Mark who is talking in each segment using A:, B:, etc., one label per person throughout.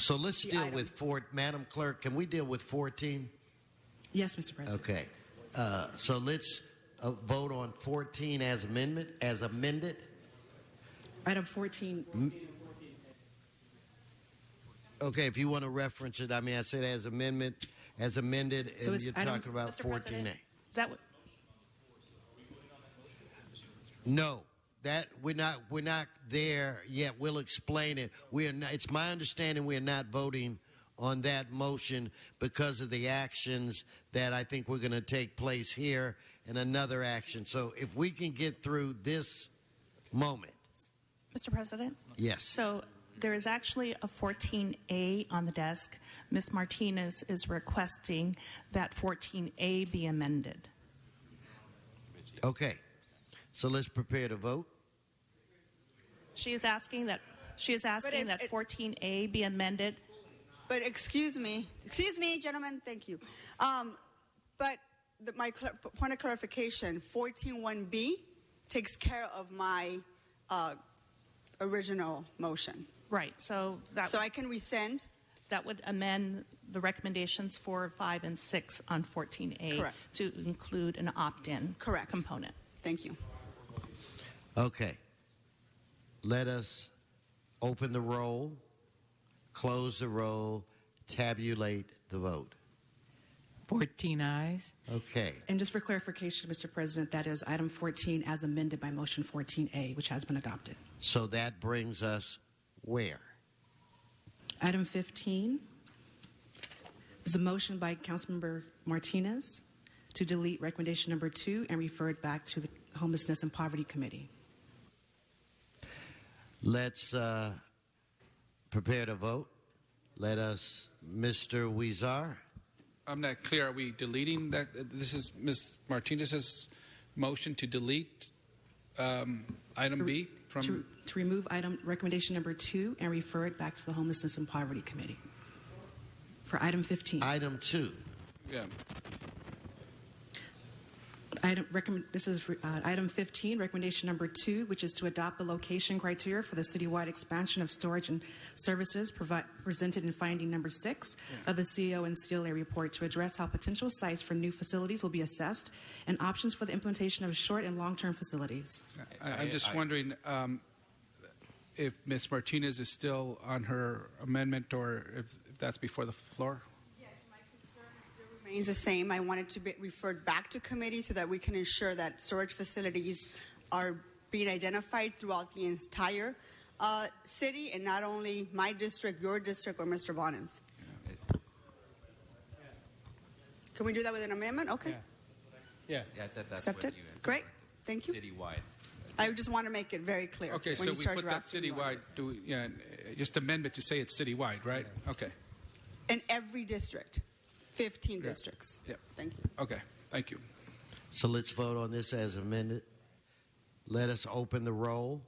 A: So let's
B: The
A: deal
B: item.
A: with four, Madam Clerk, can we deal with 14?
B: Yes, Mr. President.
A: Okay. Uh, So let's uh, vote on 14 as amendment, as amended.
B: Item 14,
A: Okay, if you want to reference it, I mean, I said as amendment, as amended,
B: So
A: and
B: it's
A: you're
B: item-
A: talking about
B: Mr.
A: 14A.
B: President? that w-
A: No, that we're not we're not there yet. We'll explain it. We are not, it's my understanding we are not voting on that motion because of the actions that I think we're going to take place here and another action. So if we can get through this moment,
C: Mr. President?
A: yes.
C: So there is actually a 14A on the desk. Ms. Martinez is requesting that 14A be amended.
A: Okay. So let's prepare to vote.
C: She is asking that, she is asking
D: if
C: that
D: it-
C: 14A be amended.
D: But excuse me, excuse me, gentlemen. Thank you. Um, but the, my cl- point of clarification: fourteen one B takes care of my uh, original motion,
C: Right, so that,
D: so I can rescind.
C: that would amend the recommendations four, five, and six on 14A
D: Correct.
C: to include an opt-in
D: Correct.
C: component.
D: Thank you.
A: Okay. Let us open the roll, close the roll, tabulate the vote.
E: 14 eyes.
A: Okay.
B: and just for clarification, Mr. President, that is item 14 as amended by motion 14A, which has been adopted.
A: So that brings us where?
B: Item 15 is a motion by Councilmember Martinez to delete recommendation number two and refer it back to the Homelessness and Poverty Committee.
A: Let's uh, prepare to vote. Let us, Mr. Weezar.
F: I'm not clear. Are we deleting that? This is Ms. Martinez's motion to delete um, item B
B: To,
F: from.
B: to remove item recommendation number two and refer it back to the Homelessness and Poverty Committee. For item 15,
A: Item two.
F: Yeah.
B: item, recommend, this is for, uh, item 15, recommendation number two, which is to adopt the location criteria for the citywide expansion of storage and services provi- presented in finding number six of the CEO and CLA report to address how potential sites for new facilities will be assessed and options for the implementation of short and long term facilities.
F: I, I'm just
G: I-
F: wondering um, if Ms. Martinez is still on her amendment or if, if that's before the floor.
D: Yes, my concern still remains the same. I want it to be referred back to committee so that we can ensure that storage facilities are being identified throughout the entire uh, city and not only my district, your district, or Mr. Bonin's. Can we do that with an amendment? Okay,
G: Yeah, that, that's what
D: accepted.
G: you had
D: Great, thank you.
G: citywide.
D: I just want to make it very clear.
F: Okay,
D: when
F: so
D: you
F: we
D: start
F: put that
D: drafting the
F: citywide.
D: ordinance.
F: Do we, yeah, uh, just amendment to say it's citywide, right? Okay.
D: In every district, 15
F: Yeah.
D: districts.
F: Yeah.
D: Thank you.
F: Okay. Thank you.
A: So let's vote on this as amended. Let us open the roll,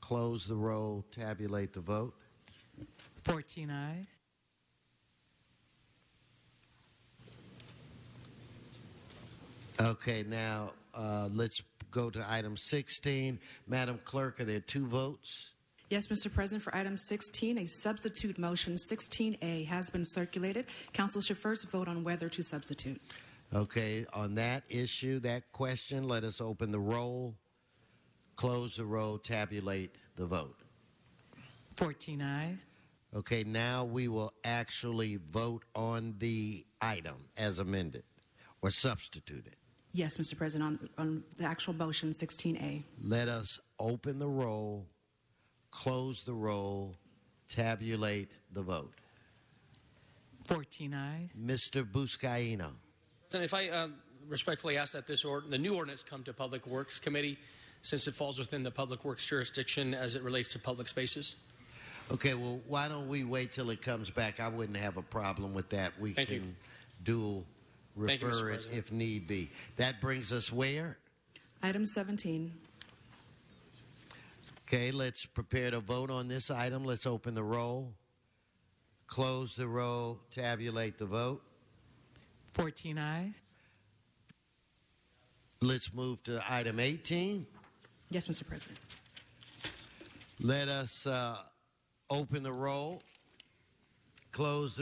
A: close the roll, tabulate the vote.
E: 14 eyes.
A: Okay, now uh, let's go to item 16. Madam Clerk, are there two votes?
B: Yes, Mr. President, for item 16, a substitute motion 16A has been circulated. Council should first vote on whether to substitute.
A: Okay, on that issue, that question, let us open the roll, close the roll, tabulate the vote.
E: 14 eyes.
A: Okay, now we will actually vote on the item as amended or substituted.
B: Yes, Mr. President, on, on the actual motion 16A.
A: Let us open the roll, close the roll, tabulate the vote.
E: 14 eyes.
A: Mr. Buscaino.
H: And if I uh, respectfully ask that this ord- the new ordinance come to Public Works Committee, since it falls within the Public Works jurisdiction as it relates to public spaces.
A: Okay, well, why don't we wait till it comes back? I wouldn't have a problem with that. We
H: Thank you.
A: can dual
H: Thank you, Mr.
A: refer it
H: President.
A: if need be. That brings us where?
B: Item 17.
A: Okay, let's prepare to vote on this item. Let's open the roll, close the roll, tabulate the vote.
E: 14 eyes.
A: Let's move to item 18.
B: Yes, Mr. President.
A: Let us uh, open the roll, close